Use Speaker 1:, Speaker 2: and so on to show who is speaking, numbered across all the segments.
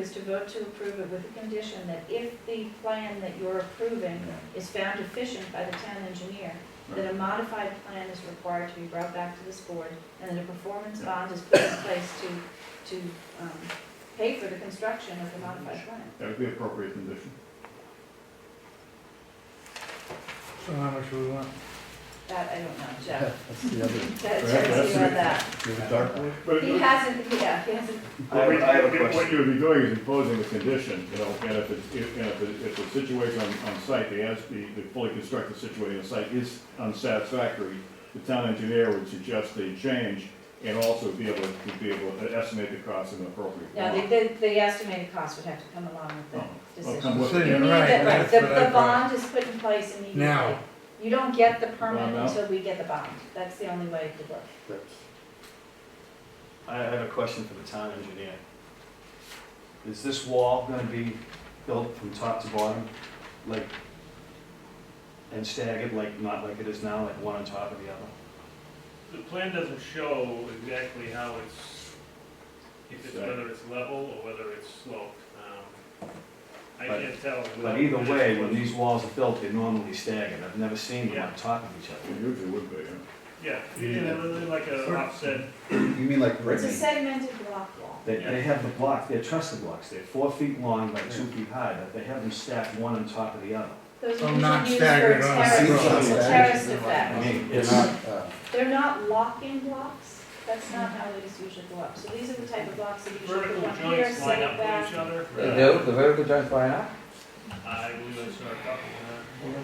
Speaker 1: is to vote to approve it with the condition that if the plan that you're approving is found deficient by the town engineer, that a modified plan is required to be brought back to this board, and that a performance bond is put in place to, to um, pay for the construction of the modified plan.
Speaker 2: That would be appropriate condition.
Speaker 3: So how much we want?
Speaker 1: That I don't know, Jeff.
Speaker 4: That's the other.
Speaker 1: That
Speaker 2: Perhaps
Speaker 1: turns you on
Speaker 2: that's
Speaker 1: that.
Speaker 2: Is it dark blue?
Speaker 3: But
Speaker 1: He hasn't, yeah, he hasn't,
Speaker 2: What we-
Speaker 4: I have a question.
Speaker 2: What you would be doing is imposing a condition, you know, and if it's, if, and if it- if the situation on, on site, the as, the, the fully constructed situation on site is unsatisfactory, the town engineer would suggest a change and also be able to, be able to estimate the cost in an appropriate
Speaker 1: no, the,
Speaker 2: form.
Speaker 1: the- the estimated cost would have to come along with the
Speaker 2: Oh, well,
Speaker 1: decision.
Speaker 2: come with
Speaker 3: Decision.
Speaker 1: You
Speaker 2: it.
Speaker 1: need
Speaker 3: Right,
Speaker 1: that, right,
Speaker 3: that's
Speaker 1: the,
Speaker 3: what I
Speaker 1: the
Speaker 3: thought.
Speaker 1: bond is put in place immediately.
Speaker 3: Now.
Speaker 1: You don't get the permit
Speaker 2: Bond out.
Speaker 1: until we get the bond, that's the only way it could work.
Speaker 4: I have a question for the town engineer. Is this wall gonna be built from top to bottom, like, and staggered, like, not like it is now, like one on top of the other?
Speaker 5: The plan doesn't show exactly how it's, if it's, whether it's level or whether it's sloped. Um, I
Speaker 4: But-
Speaker 5: can't tell.
Speaker 4: But either way, when these walls are built, they're normally staggered, I've never seen them on top of each
Speaker 2: It
Speaker 4: other.
Speaker 2: Usually would be, yeah.
Speaker 5: Yeah, you know, really like a
Speaker 3: Sort of.
Speaker 5: offset,
Speaker 6: You mean like
Speaker 1: It's a
Speaker 6: Brittany?
Speaker 1: segmented block wall.
Speaker 4: They, they have the block, they're trestle blocks, they're four feet long, like two feet high, but they have them stacked one on top of the other.
Speaker 1: Those
Speaker 3: So
Speaker 1: are usually
Speaker 3: not
Speaker 1: used for
Speaker 3: staggered on a
Speaker 1: terrace,
Speaker 6: sequence.
Speaker 1: terrace
Speaker 4: I
Speaker 1: effect.
Speaker 4: mean,
Speaker 6: They're
Speaker 4: it's,
Speaker 6: not, uh,
Speaker 1: They're not locking blocks, that's not how these usually go up. So these are the type of blocks that usually
Speaker 5: vertical
Speaker 1: go up here,
Speaker 5: joints
Speaker 1: set
Speaker 5: line
Speaker 1: it
Speaker 5: up with
Speaker 1: back.
Speaker 5: each other.
Speaker 6: They do, the vertical joints line up,
Speaker 5: I believe I saw a couple, uh,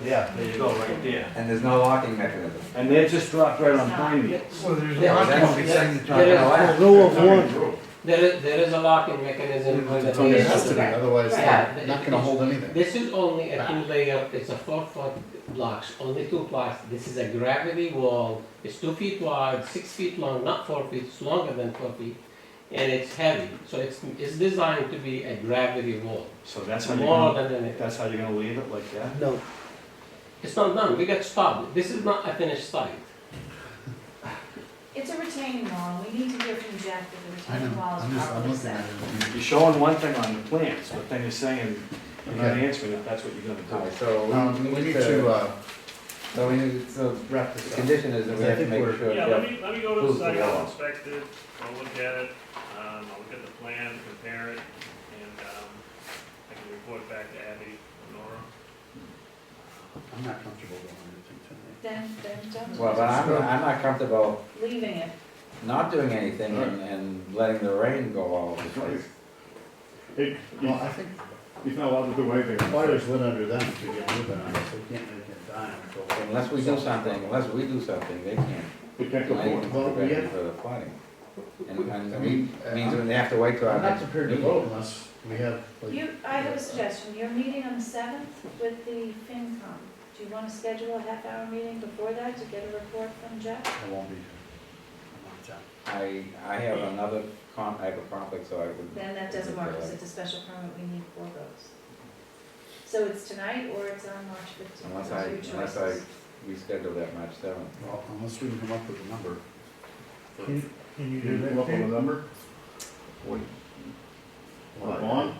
Speaker 4: yeah, there you go, right there.
Speaker 6: and there's no locking mechanism.
Speaker 4: And they're just dropped right on pine needles.
Speaker 3: Well, there's
Speaker 7: Yeah,
Speaker 3: not
Speaker 7: that's-
Speaker 3: gonna be
Speaker 7: that's-
Speaker 3: signed.
Speaker 7: that is-
Speaker 6: Wow.
Speaker 2: Rule of one.
Speaker 7: There is, there is a locking mechanism for the
Speaker 6: It's only
Speaker 1: Yeah.
Speaker 6: it
Speaker 7: layer.
Speaker 6: has to be, otherwise
Speaker 7: Yeah.
Speaker 6: they're not gonna hold anything.
Speaker 7: This is only a two layer, it's a four foot blocks, only two blocks. This is a gravity wall, it's two feet wide, six feet long, not four feet, it's longer than four feet. And it's heavy, so it's, it's designed to be a gravity wall,
Speaker 4: So that's how you're
Speaker 7: more
Speaker 4: gonna,
Speaker 7: than anything.
Speaker 4: that's how you're gonna leave it, like that?
Speaker 7: No. It's not done, we got stopped, this is not a finished site.
Speaker 1: It's a retaining wall, we need to hear from Jack that the
Speaker 6: I
Speaker 1: retaining
Speaker 6: know,
Speaker 1: wall
Speaker 6: I'm
Speaker 1: is
Speaker 6: just, I'm
Speaker 1: properly
Speaker 6: looking at
Speaker 1: set.
Speaker 6: it.
Speaker 4: You're showing one thing on the plans, but then you're saying, you're not
Speaker 6: Okay.
Speaker 4: answering if that's what you're gonna
Speaker 6: Alright,
Speaker 4: do.
Speaker 8: Um,
Speaker 6: so we need to, uh, so we need, so
Speaker 4: Wrap
Speaker 6: the
Speaker 4: this up.
Speaker 6: condition is that we
Speaker 4: I
Speaker 6: have to
Speaker 4: think
Speaker 6: make
Speaker 4: we're-
Speaker 6: sure,
Speaker 5: Yeah, let
Speaker 6: yeah,
Speaker 5: me, let me go to
Speaker 6: Who's
Speaker 5: the
Speaker 6: the
Speaker 5: site,
Speaker 6: yellow?
Speaker 5: I'll inspect it, I'll look at it, um, I'll look at the plan, compare it, and, um, I can report back to Abby or Nora.
Speaker 4: I'm not comfortable going anything tonight.
Speaker 1: Then, then
Speaker 6: well,
Speaker 1: don't,
Speaker 6: but I'm, I'm not comfortable
Speaker 1: leaving it.
Speaker 6: not doing anything and, and letting the rain go all over the place.
Speaker 2: It,
Speaker 8: Well, I think
Speaker 2: he's not allowed to do anything. on site.
Speaker 8: fires lit under them to get moving on it, so we can't make it dime until.
Speaker 6: Unless we do something, unless we do something, they can't,
Speaker 2: It can't
Speaker 6: they
Speaker 2: go forward.
Speaker 6: can
Speaker 8: Well, we
Speaker 6: prevent
Speaker 8: have-
Speaker 6: for the flooding. And, and
Speaker 8: I
Speaker 6: it
Speaker 8: mean,
Speaker 6: means
Speaker 8: I'm
Speaker 6: they have to wait till our
Speaker 8: I'm not
Speaker 6: next
Speaker 8: prepared to
Speaker 6: meeting.
Speaker 8: vote unless we have, like,
Speaker 1: You, I have a suggestion, you're meeting on the seventh with the FinCom. Do you want to schedule a half hour meeting before that to get a report from Jeff?
Speaker 8: I won't be here. I'm on time.
Speaker 6: I, I have another con, I have a conflict, so I would.
Speaker 1: Then that doesn't work, because it's a special permit, we need four votes. So it's tonight or it's on March fifteenth,
Speaker 6: Unless
Speaker 1: those
Speaker 6: I,
Speaker 1: are your
Speaker 6: unless I
Speaker 1: choices.
Speaker 6: reschedule that March seventh.
Speaker 8: Well, unless we can come up with a number.
Speaker 3: Can can you
Speaker 2: Can
Speaker 3: do
Speaker 2: you
Speaker 3: that?
Speaker 2: come up with a
Speaker 3: Pete?
Speaker 2: number? What,
Speaker 8: Well,
Speaker 2: a bond?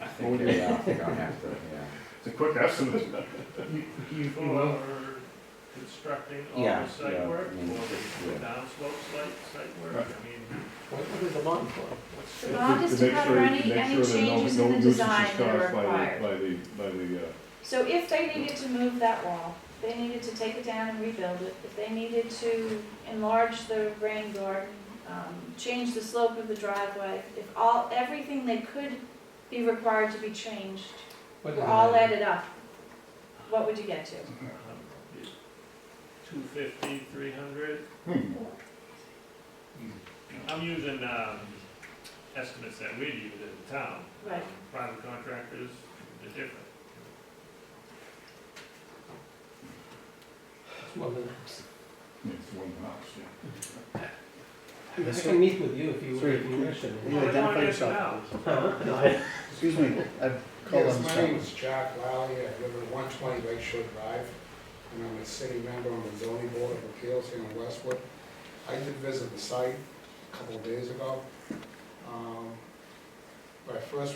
Speaker 4: I
Speaker 2: Well,
Speaker 4: think,
Speaker 2: we-
Speaker 6: Yeah, I think I'll have to, yeah.
Speaker 2: It's a quick estimate.
Speaker 3: You, you, you will.
Speaker 5: For constructing all
Speaker 6: Yeah,
Speaker 5: the site
Speaker 6: yeah,
Speaker 5: work,
Speaker 6: I
Speaker 5: or
Speaker 6: mean,
Speaker 5: the
Speaker 6: yeah.
Speaker 5: downslope site, site work, I mean,
Speaker 7: What what is the bond for?
Speaker 5: what's
Speaker 1: The
Speaker 5: the,
Speaker 1: bond is to
Speaker 2: make
Speaker 1: cover
Speaker 2: sure-
Speaker 1: any,
Speaker 2: make
Speaker 1: any
Speaker 2: sure that no-
Speaker 1: changes
Speaker 2: no
Speaker 1: in the
Speaker 2: nuisance is
Speaker 1: design that are
Speaker 2: caused by the-
Speaker 1: required.
Speaker 2: By the, by the, uh,
Speaker 1: So if they needed to move that wall, they needed to take it down and rebuild it, if they needed to enlarge the rain garden, um, change the slope of the driveway, if all, everything they could be required to be changed,
Speaker 7: What is
Speaker 1: were all
Speaker 7: it?
Speaker 1: added up, what would you get to?
Speaker 5: two fifty, three hundred?
Speaker 2: hmm,
Speaker 5: I'm using, um, estimates that we use in the town.
Speaker 1: Right.
Speaker 5: Private contractors, they're different.
Speaker 7: It's more than-
Speaker 2: it's one house, yeah.
Speaker 7: I
Speaker 8: Yes,
Speaker 7: can meet with you if you,
Speaker 8: Sir,
Speaker 7: if you
Speaker 8: please.
Speaker 7: wish. I mean.
Speaker 8: Will you
Speaker 5: Well, they wanna
Speaker 8: identify
Speaker 5: get
Speaker 8: yourself?
Speaker 5: them
Speaker 8: Excuse me, I've called
Speaker 9: Yes,
Speaker 8: on the
Speaker 9: my name
Speaker 8: show.
Speaker 9: is Jack Lally, I live at one twenty Lake Shore Drive, and I'm a city member on the zoning board of appeals here in Westwood. I did visit the site a couple of days ago. Um, But I first